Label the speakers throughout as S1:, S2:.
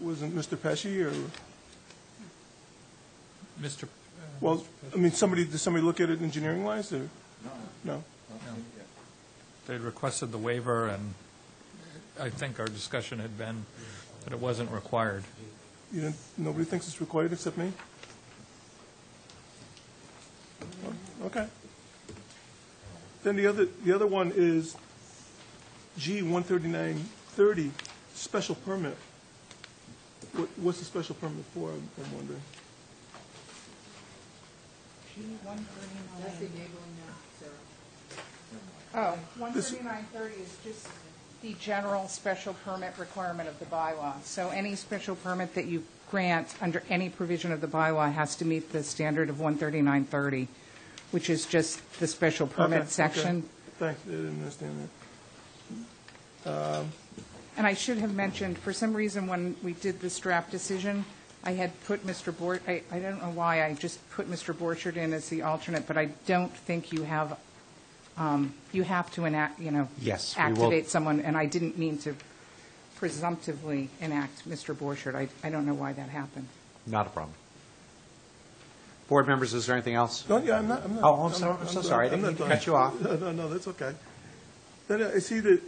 S1: wasn't Mr. Pesci, or,
S2: Mr.,
S1: well, I mean, somebody, did somebody look at it engineering-wise, or? No. No?
S2: they requested the waiver, and I think our discussion had been that it wasn't required.
S1: You didn't, nobody thinks it's required except me? Okay. Then the other, the other one is G one thirty-nine thirty, special permit. What, what's the special permit for, I'm I'm wondering?
S3: That's enabling now, Sarah. Oh, 13930 is just the general special permit requirement of the bylaw. So any special permit that you grant under any provision of the bylaw has to meet the standard of 13930, which is just the special
S1: Okay,
S3: permit
S1: okay.
S3: section.
S1: Thanks, I didn't understand that.
S3: And I should have mentioned, for some reason, when we did this draft decision, I had put Mr. Bor, I, I don't know why, I just put Mr. Borchard in as the alternate, but I don't think you have, um, you have to enact, you know.
S4: Yes, we will-
S3: Activate someone, and I didn't mean to presumptively enact Mr. Borchard. I, I don't know why that happened.
S4: Not a problem. Board members, is there anything else?
S1: No, yeah, I'm not, I'm not.
S4: Oh, I'm so- I'm so sorry. I didn't
S1: I'm not
S4: mean to
S1: done.
S4: cut you off.
S1: No, no, no, that's okay. Then I see that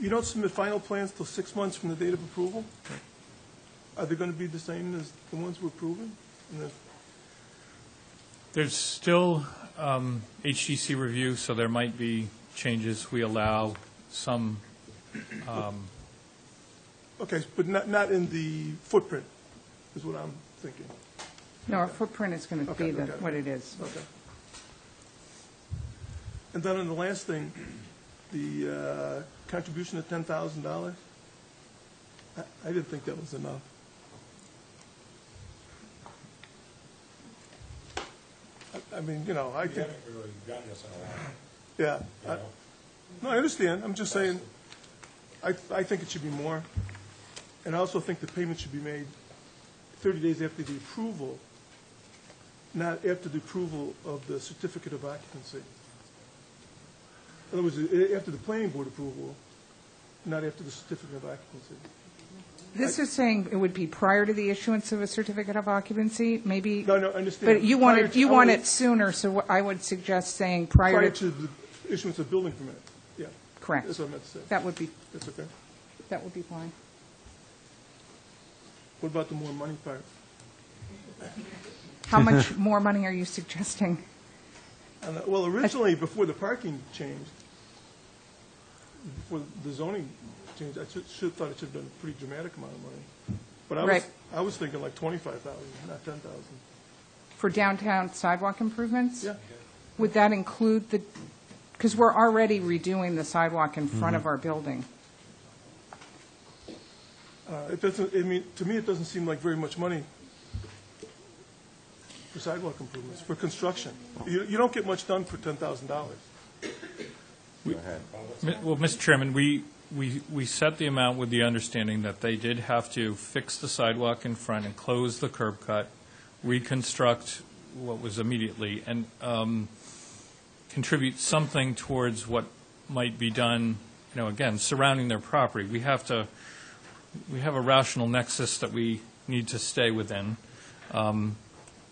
S1: you don't submit final plans till six months from the date of approval? Are they going to be the same as the ones we're approving? And if-
S2: There's still um, HGC review, so there might be changes. We allow some,
S1: Okay, but not, not in the footprint, is what I'm thinking.
S3: No, our footprint is going to be
S1: Okay,
S3: the,
S1: okay.
S3: what it is.
S1: Okay. And then on the last thing, the uh, contribution of ten thousand dollars? I I didn't think that was enough. I- I mean, you know, I
S5: We
S1: think,
S5: haven't really done this in a while,
S1: yeah. I-
S5: you know?
S1: No, I understand, I'm just saying, I, I think it should be more. And I also think the payment should be made thirty days after the approval, not after the approval of the certificate of occupancy. In other words, a- after the planning board approval, not after the certificate of occupancy.
S3: This is saying it would be prior to the issuance of a certificate of occupancy, maybe.
S1: No, no, I understand.
S3: But you want
S1: Prior
S3: it,
S1: to-
S3: you
S1: I
S3: want
S1: wanna-
S3: it sooner, so what I would suggest saying prior
S1: Prior to
S3: to,
S1: the issuance of building permit, yeah.
S3: Correct.
S1: That's what I meant to say.
S3: that would be,
S1: That's okay.
S3: that would be fine.
S1: What about the more money part?
S3: How much more money are you suggesting?
S1: And, uh, Well, originally, before the parking changed, before the zoning changed, I should, should have thought it should have been a pretty dramatic amount of money. But I was,
S3: Right.
S1: I was thinking like twenty-five thousand, not ten thousand.
S3: For downtown sidewalk improvements?
S1: Yeah,
S3: Would that include the, because we're already redoing the sidewalk in front of our building.
S1: Uh, it doesn't, I mean, to me, it doesn't seem like very much money for sidewalk improvements, for construction. You, you don't get much done for ten thousand dollars.
S2: Mi- well, Mr. Chairman, we, we, we set the amount with the understanding that they did have to fix the sidewalk in front and close the curb cut, reconstruct what was immediately, and um, contribute something towards what might be done, you know, again, surrounding their property. We have to, we have a rational nexus that we need to stay within. Um,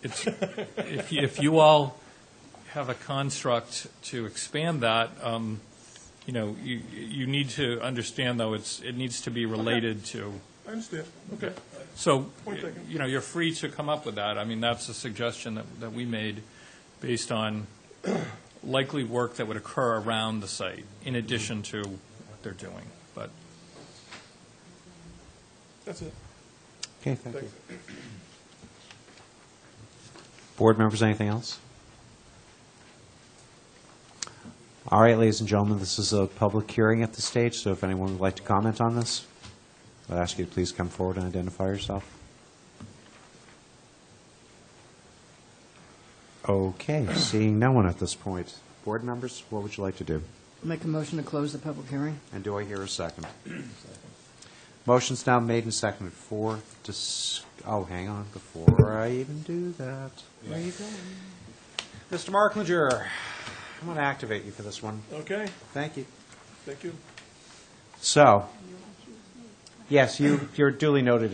S2: It's, if you- if you all have a construct to expand that, um, you know, you, you need to understand, though, it's, it needs to be related to,
S1: I understand, okay.
S2: so,
S1: Point taken.
S2: you know, you're free to come up with that. I mean, that's a suggestion that, that we made based on likely work that would occur around the site in addition to what they're doing. But
S1: That's it,
S4: Okay, thank you.
S1: thanks.
S4: Board members, anything else? All right, ladies and gentlemen, this is a public hearing at this stage, so if anyone would like to comment on this, I'd ask you to please come forward and identify yourself. Okay, seeing no one at this point. Board members, what would you like to do?
S6: Make a motion to close the public hearing?
S4: And do I hear a second? Motion's now made and seconded for, dis- oh, hang on, before I even do that. Where are you going? Mr. Marklinger, I'm going to activate you for this one.
S1: Okay,
S4: Thank you.
S1: thank you.
S4: So, yes, you, you're duly noted